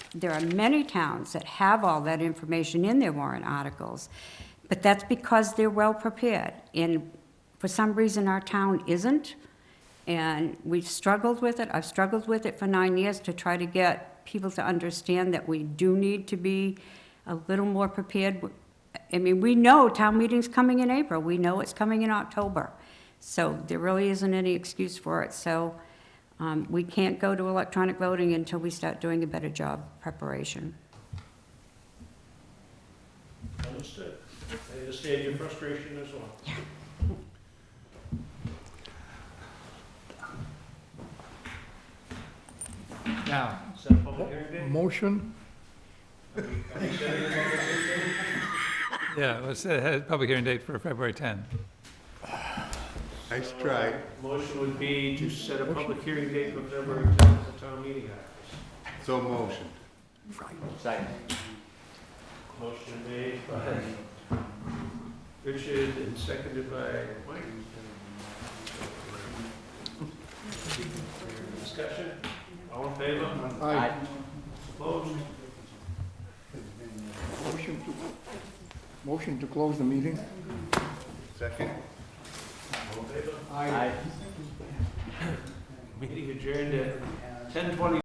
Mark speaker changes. Speaker 1: there are many towns that have all that information in their warrant articles, but that's because they're well-prepared. And for some reason, our town isn't, and we've struggled with it. I've struggled with it for nine years to try to get people to understand that we do need to be a little more prepared. I mean, we know town meeting's coming in April, we know it's coming in October, so there really isn't any excuse for it. So um, we can't go to electronic voting until we start doing a better job preparation.
Speaker 2: Understood. I understand your frustration as well.
Speaker 3: Now,
Speaker 2: Is that a public hearing day?
Speaker 3: motion?
Speaker 2: Are we setting a public hearing day?
Speaker 4: Yeah, let's, uh, have a public hearing date for February 10.
Speaker 5: Nice
Speaker 2: So,
Speaker 5: try.
Speaker 2: Motion would be to set a public hearing date for February 10th at the town meeting office.
Speaker 5: So motion.
Speaker 6: Second.
Speaker 2: Motion made by Richard and seconded by Mike. Discussion? All in favor?
Speaker 6: Aye.
Speaker 2: Opposed?
Speaker 3: Motion to, motion to close the meeting?
Speaker 5: Second.
Speaker 2: All in favor? Meeting adjourned at 10:20.